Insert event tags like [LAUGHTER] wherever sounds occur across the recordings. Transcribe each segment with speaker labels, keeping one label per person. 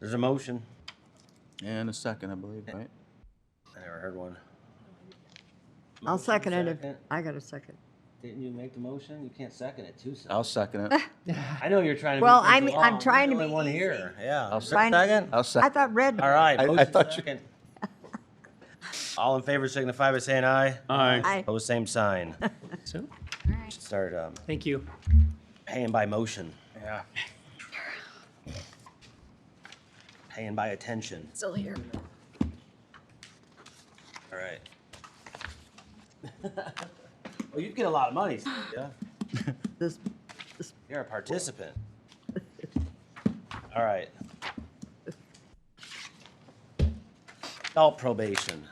Speaker 1: There's a motion.
Speaker 2: And a second, I believe,
Speaker 3: Eh.
Speaker 2: right?
Speaker 1: I never heard one.
Speaker 3: I'll
Speaker 1: Motion,
Speaker 3: second it if,
Speaker 1: second.
Speaker 3: I got a second.
Speaker 1: Didn't you make the motion? You can't second it too. so-
Speaker 2: I'll second
Speaker 3: Eh,
Speaker 2: it.
Speaker 1: I know you're trying to.
Speaker 3: Well,
Speaker 1: move things
Speaker 3: I'm- I'm
Speaker 1: along. You're
Speaker 3: trying
Speaker 1: the
Speaker 3: to
Speaker 1: only
Speaker 3: be
Speaker 1: one
Speaker 3: easy.
Speaker 1: here. Yeah.
Speaker 2: I'll
Speaker 1: Is
Speaker 3: Fine.
Speaker 1: there a second?
Speaker 2: I'll
Speaker 3: I
Speaker 2: second.
Speaker 3: thought red.
Speaker 1: All right.
Speaker 2: I- I
Speaker 1: motion
Speaker 2: thought you-
Speaker 1: second. All in favor signify by saying aye.
Speaker 4: Aye.
Speaker 3: I,
Speaker 1: Pose same
Speaker 3: [LAUGHS]
Speaker 1: sign.
Speaker 4: So,
Speaker 1: Should Start um,
Speaker 4: thank you.
Speaker 1: paying by motion. Yeah. Paying by attention.
Speaker 5: Still here.
Speaker 1: All right. [LAUGHS] Well, you'd get a lot of money, yeah.
Speaker 3: this,
Speaker 1: You're a participant. All right. Adult probation.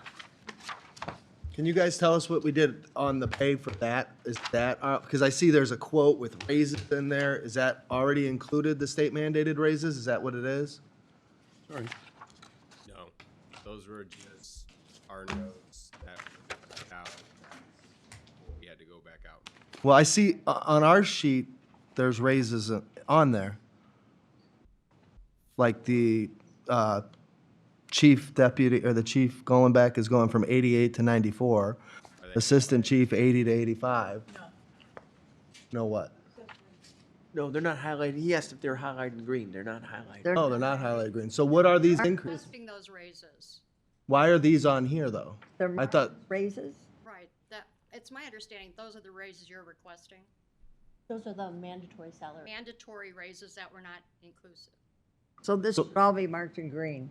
Speaker 6: Can you guys tell us what we did on the pay for that? Is that, because I see there's a quote with raises in there. Is that already included, the state mandated raises? Is that what it is?
Speaker 7: No, those were just our notes that were put out. We had to go back out.
Speaker 6: Well, I see uh, on our sheet, there's raises uh, on there. Like the uh, chief deputy, or the chief going back is going from 88 to 94. Assistant chief 80 to 85. No what?
Speaker 8: No, they're not highlighted. He asked if they're highlighted in green. They're not highlighted.
Speaker 3: they're,
Speaker 6: Oh, they're not highlighted green. So what are these increases?
Speaker 5: Requesting those raises,
Speaker 6: Why are these on here, though?
Speaker 3: they're
Speaker 6: I thought,
Speaker 3: raises?
Speaker 5: right, that, it's my understanding, those are the raises you're requesting,
Speaker 9: Those are the mandatory salaries.
Speaker 5: mandatory raises that were not inclusive.
Speaker 3: So this should all be marked in green.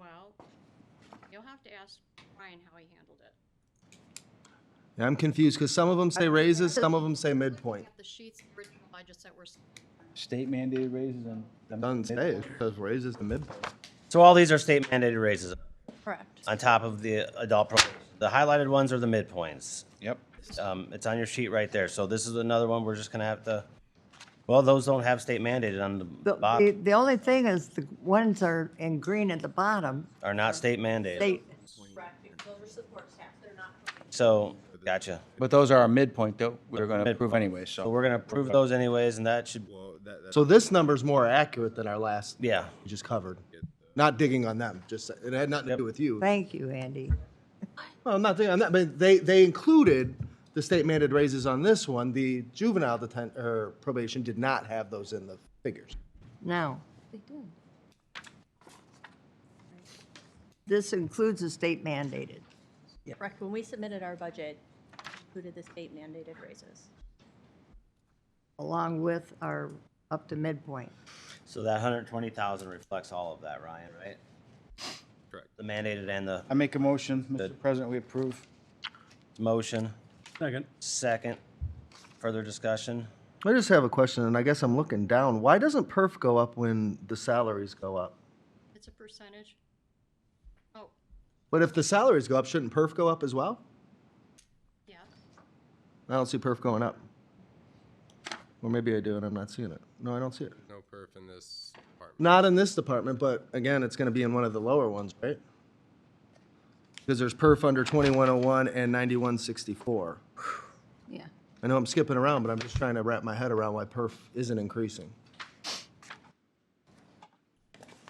Speaker 5: Well, you'll have to ask Ryan how he handled it.
Speaker 6: I'm confused, because some of them say raises, some of them say midpoint.
Speaker 5: Looking at the sheets, the original budgets that were, s-
Speaker 2: State mandated raises and.
Speaker 6: Doesn't say, it says raises to midpoint.
Speaker 1: So all these are state mandated raises
Speaker 9: Correct.
Speaker 1: on top of the adult probation. The highlighted ones are the midpoints.
Speaker 2: Yep.
Speaker 1: Um, it's on your sheet right there. So this is another one we're just gonna have to, well, those don't have state mandated on the
Speaker 3: The, the,
Speaker 1: bottom,
Speaker 3: the only thing is the ones are in green at the bottom.
Speaker 1: are not state mandated.
Speaker 3: They,
Speaker 9: Correct, because those are support staff, they're not.
Speaker 1: So, gotcha.
Speaker 2: But those are our midpoint though. We're gonna approve anyway,
Speaker 1: So
Speaker 2: so.
Speaker 1: we're gonna approve those anyways, and that should,
Speaker 7: Well, that, that's
Speaker 6: So this number's more accurate than our last, we
Speaker 1: yeah.
Speaker 6: just covered. Not digging on them, just, it had nothing to do with you.
Speaker 3: thank you, Andy.
Speaker 6: Well, I'm not digging on that, but they, they included the state mandated raises on this one. The juvenile deten, or probation did not have those in the figures.
Speaker 3: No. This includes the state mandated.
Speaker 9: Correct, when we submitted our budget, included the state mandated raises.
Speaker 3: along with our up to midpoint.
Speaker 1: So that hundred twenty thousand reflects all of that, Ryan, right?
Speaker 7: Correct.
Speaker 1: The mandated and the
Speaker 2: I make a motion, Mr. President, we approve.
Speaker 1: motion,
Speaker 4: Second.
Speaker 1: second, further discussion?
Speaker 6: I just have a question, and I guess I'm looking down. Why doesn't perf go up when the salaries go up?
Speaker 5: it's a percentage. Oh,
Speaker 6: But if the salaries go up, shouldn't perf go up as well?
Speaker 5: yeah,
Speaker 6: I don't see perf going up. Or maybe I do and I'm not seeing it. No, I don't see it.
Speaker 7: no perf in this department.
Speaker 6: Not in this department, but again, it's gonna be in one of the lower ones, right? Because there's perf under twenty-one oh one and ninety-one sixty-four.
Speaker 5: Yeah.
Speaker 6: I know I'm skipping around, but I'm just trying to wrap my head around why perf isn't increasing.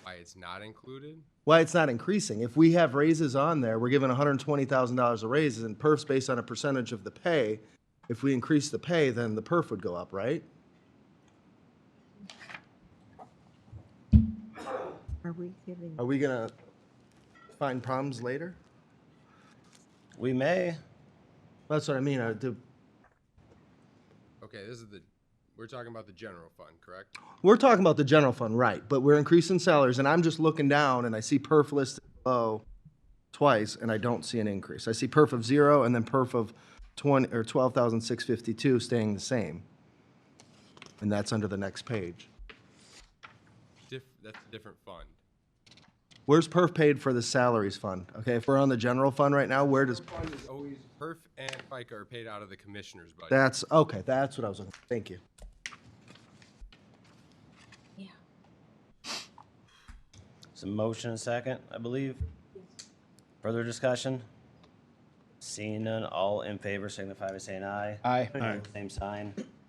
Speaker 7: Why it's not included?
Speaker 6: Why it's not increasing. If we have raises on there, we're giving hundred and twenty thousand dollars of raises and perf's based on a percentage of the pay. If we increase the pay, then the perf would go up, right?
Speaker 3: Are we giving,
Speaker 6: Are we gonna find problems later?
Speaker 1: We may,
Speaker 6: That's what I mean. Uh, I do-
Speaker 7: Okay, this is the, we're talking about the general fund, correct?
Speaker 6: We're talking about the general fund, right, but we're increasing salaries, and I'm just looking down and I see perf listed below twice, and I don't see an increase. I see perf of zero and then perf of twenty, or twelve thousand six fifty-two staying the same. And that's under the next page.
Speaker 7: Diff, that's a different fund.
Speaker 6: Where's perf paid for the salaries fund? Okay, if we're on the general fund right now, where does,
Speaker 7: Fund is always, perf and FICA are paid out of the commissioner's budget.
Speaker 6: that's, okay, that's what I was looking, thank you.
Speaker 1: it's a motion and second, I believe. Further discussion? Seeing none, all in favor signify by saying aye.
Speaker 2: Aye.
Speaker 1: Same sign.